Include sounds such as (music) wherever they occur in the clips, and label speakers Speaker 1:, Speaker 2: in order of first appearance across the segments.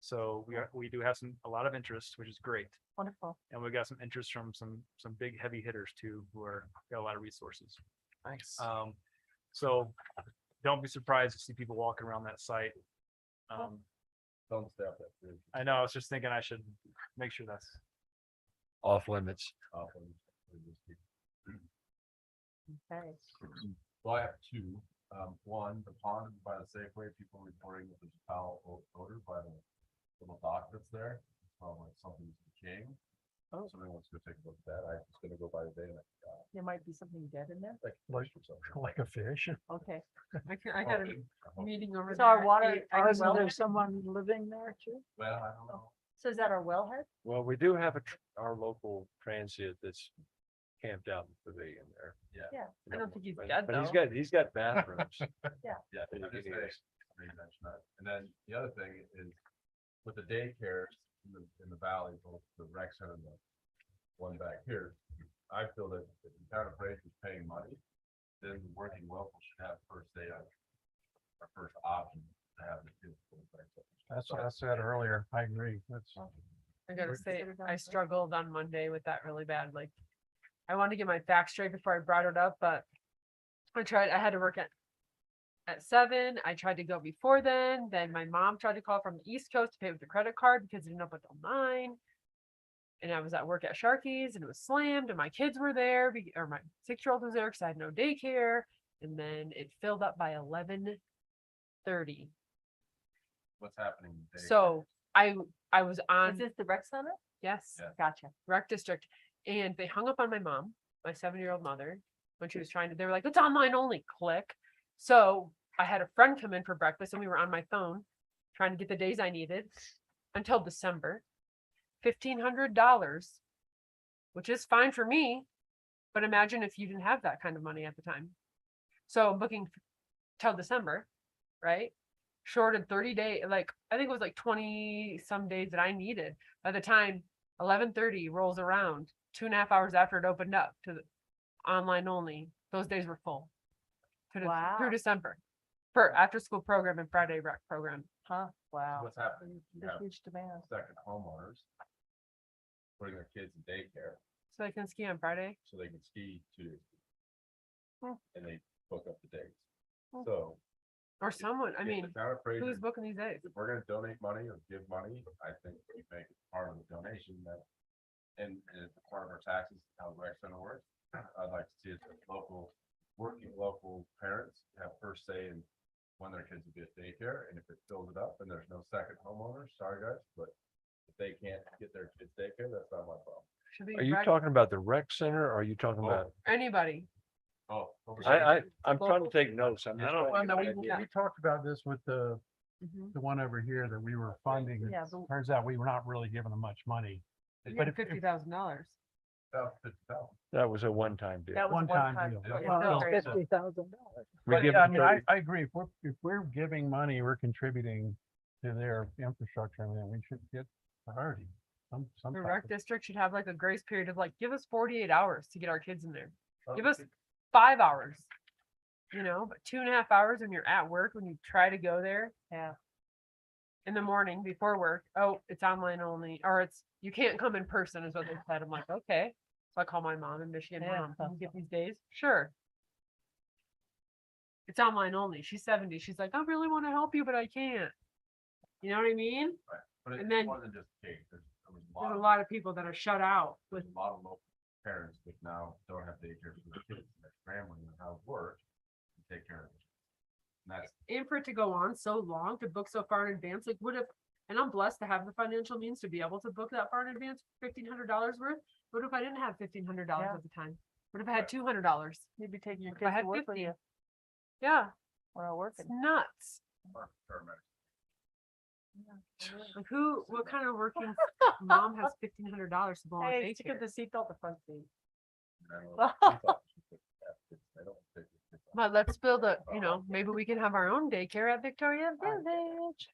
Speaker 1: So we are, we do have some, a lot of interest, which is great.
Speaker 2: Wonderful.
Speaker 1: And we got some interest from some, some big heavy hitters too, who are, got a lot of resources.
Speaker 2: Nice.
Speaker 1: Um, so don't be surprised to see people walking around that site. Um,
Speaker 3: Don't step that bridge
Speaker 1: I know, I was just thinking I should make sure that's,
Speaker 3: off limits. Off limits.
Speaker 2: Okay.
Speaker 3: Well, I have two. Um, one, the pond by the Safeway, people reporting that there's a foul o- odor by the little dock that's there. Well, like something's decaying.
Speaker 2: Oh.
Speaker 3: Somebody wants to go take a look at that. I was gonna go by today and I, uh,
Speaker 2: There might be something dead in there.
Speaker 3: like. Like something.
Speaker 4: Like a fish.
Speaker 2: Okay.
Speaker 5: I can, I
Speaker 3: Oh,
Speaker 5: got a
Speaker 3: I hope-
Speaker 5: meeting over.
Speaker 2: So our
Speaker 5: there at
Speaker 2: water,
Speaker 5: eight. I can
Speaker 2: isn't
Speaker 5: weld
Speaker 2: there
Speaker 5: it.
Speaker 2: someone living there too?
Speaker 3: Well, I don't know.
Speaker 2: So is that our wellhead?
Speaker 4: Well, we do have a, tr- our local transient that's camped out in the pavilion there.
Speaker 3: Yeah.
Speaker 4: You
Speaker 2: Yeah.
Speaker 5: I
Speaker 4: know,
Speaker 5: don't think he's
Speaker 4: but-
Speaker 5: dead
Speaker 4: But he's
Speaker 5: though.
Speaker 4: got, he's
Speaker 5: (laughs)
Speaker 4: got bathrooms.
Speaker 3: Yeah.
Speaker 4: that he
Speaker 3: I'm just
Speaker 4: can
Speaker 3: saying.
Speaker 4: use.
Speaker 3: they mentioned that. And then the other thing is with the daycares in the, in the valley, both the rec center and the one back here, I feel that if the town of Fraser is paying money, then the working local should have first day on, or first option to have the kids. go to rec centers.
Speaker 4: That's what I said earlier. I agree. That's.
Speaker 5: I gotta
Speaker 4: We're-
Speaker 5: say,
Speaker 2: Considered
Speaker 5: I
Speaker 2: on-
Speaker 5: struggled on Monday with that really bad, like. I wanted to get my facts straight before I brought it up, but. I tried, I had to work at. At seven, I tried to go before then, then my mom tried to call from the East Coast to pay with the credit card because it didn't open till nine. And I was at work at Sharky's and it was slammed and my kids were there, be- or my six-year-old was there because I had no daycare. And then it filled up by eleven thirty.
Speaker 3: What's happening? in the daycare.
Speaker 5: So I, I was
Speaker 2: Is
Speaker 5: on,
Speaker 2: this the rec center?
Speaker 5: yes
Speaker 3: Yeah.
Speaker 2: Gotcha.
Speaker 5: rec district and they hung up on my mom, my seven year old mother, when she was trying to, they were like, it's online only, click. So I had a friend come in for breakfast and we were on my phone trying to get the days I needed until December. Fifteen hundred dollars, which is fine for me, but imagine if you didn't have that kind of money at the time. So I'm booking f- till December, right? Shorted thirty day, like, I think it was like twenty some days that I needed. By the time eleven thirty rolls around, two and a half hours after it opened up to the online only, those days were full. to the-
Speaker 2: Wow.
Speaker 5: Through December, for after school program and Friday rec program.
Speaker 2: Huh? Wow.
Speaker 3: What's happening? You
Speaker 2: The
Speaker 3: have
Speaker 2: huge demand.
Speaker 3: second homeowners. Putting their kids in daycare
Speaker 5: So I can ski on Friday.
Speaker 3: so they can ski two days.
Speaker 5: Hmm.
Speaker 3: And they book up the dates.
Speaker 5: Hmm.
Speaker 3: So.
Speaker 5: Or someone, I
Speaker 3: if the
Speaker 5: mean,
Speaker 3: Town of Fraser
Speaker 5: who's booking these days?
Speaker 3: if we're gonna donate money or give money, I think we make it part of the donation that. And and it's part of our taxes, how the rec center works. I'd like to see it that local, working local parents have first say in when their kids will be at daycare, and if it fills it up and there's no second homeowner, sorry guys, but. If they can't get their kids daycare, that's not my problem.
Speaker 5: Should be
Speaker 4: Are you
Speaker 5: rec-
Speaker 4: talking about the rec center? Or are you talking
Speaker 3: Oh.
Speaker 4: about?
Speaker 5: anybody.
Speaker 3: Oh.
Speaker 4: I, I, I'm trying to take notes. I'm
Speaker 1: I
Speaker 4: just.
Speaker 1: don't-
Speaker 4: trying to
Speaker 5: Well,
Speaker 4: get an
Speaker 5: no, we-
Speaker 4: idea.
Speaker 5: yeah.
Speaker 6: We talked about this with the,
Speaker 2: Mm-hmm.
Speaker 5: Mhm.
Speaker 6: the one over here that we were funding.
Speaker 2: Yeah,
Speaker 6: It
Speaker 2: the-
Speaker 6: Turns out we were not really giving them much money.
Speaker 5: You
Speaker 6: But
Speaker 5: get
Speaker 6: if- if-
Speaker 5: fifty thousand dollars.
Speaker 4: That was a one-time deal.
Speaker 2: That was
Speaker 6: One
Speaker 2: one
Speaker 6: time
Speaker 2: time.
Speaker 6: deal.
Speaker 2: deal.
Speaker 5: Well,
Speaker 2: Yeah.
Speaker 5: no,
Speaker 6: Well,
Speaker 5: it's
Speaker 6: so-
Speaker 2: Fifty thousand dollars.
Speaker 4: We
Speaker 6: but
Speaker 4: give
Speaker 6: yeah, I
Speaker 4: them
Speaker 6: mean, I,
Speaker 4: thirty-
Speaker 6: I agree. If we're, if we're giving money, we're contributing to their infrastructure and then we should get priority. Some, some.
Speaker 5: The
Speaker 6: type
Speaker 5: rec
Speaker 6: of-
Speaker 5: district should have like a grace period of like, give us forty-eight hours to get our kids in there.
Speaker 3: Oh,
Speaker 5: Give us five hours. You know, but two and a half hours when you're at work, when you try to go there
Speaker 2: Yeah.
Speaker 5: in the morning before work. Oh, it's online only, or it's, you can't come in person is what they said. I'm like, okay. So I call my mom in Michigan,
Speaker 2: Yeah,
Speaker 5: mom, can you get
Speaker 2: awesome.
Speaker 5: these days? Sure. It's online only. She's seventy. She's like, I really want to help you, but I can't. You know what I mean?
Speaker 3: But it
Speaker 5: and then-
Speaker 3: wasn't just cake, there's, there was a lot.
Speaker 5: There's a
Speaker 3: of-
Speaker 5: lot of people that are shut out with,
Speaker 3: with a lot of local parents that now don't have daycare for their kids, and their family and how it works, to take care of it. And that's,
Speaker 5: and for it to go on so long, to book so far in advance, like what if, and I'm blessed to have the financial means to be able to book that far in advance, fifteen hundred dollars worth. What if I didn't have fifteen hundred dollars
Speaker 2: Yeah.
Speaker 5: at the time? What if I had
Speaker 3: Right.
Speaker 5: two hundred dollars?
Speaker 2: You'd be taking your
Speaker 5: If I
Speaker 2: kids
Speaker 5: had
Speaker 2: to work with
Speaker 5: 50.
Speaker 2: you
Speaker 5: Yeah,
Speaker 2: when I'm
Speaker 5: it's (laughs)
Speaker 2: working.
Speaker 5: nuts.
Speaker 3: our paramedic.
Speaker 5: Like who, what kind of working (laughs)
Speaker 2: (laughs)
Speaker 5: mom (laughs) has fifteen hundred dollars to blow on
Speaker 2: Hey, stick
Speaker 5: daycare?
Speaker 2: with the seatbelt, the front seat.
Speaker 3: And I don't know if it's all just with that, it's- they don't take it, it's all-
Speaker 5: But let's build a, you know, maybe we can have our own daycare at Victoria Village.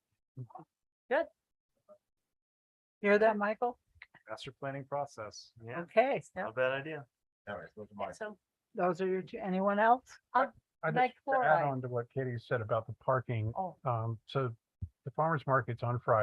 Speaker 2: Hear that, Michael?
Speaker 1: master planning process. Yeah,
Speaker 2: Okay.
Speaker 1: not a bad idea.
Speaker 3: Anyways, those are my-
Speaker 2: So those are your two. Anyone else?
Speaker 6: I just-
Speaker 2: Like
Speaker 6: To add
Speaker 2: fluoride.
Speaker 6: on to what Katie said about the parking,
Speaker 2: Oh.
Speaker 6: um, so the farmer's market's on Friday.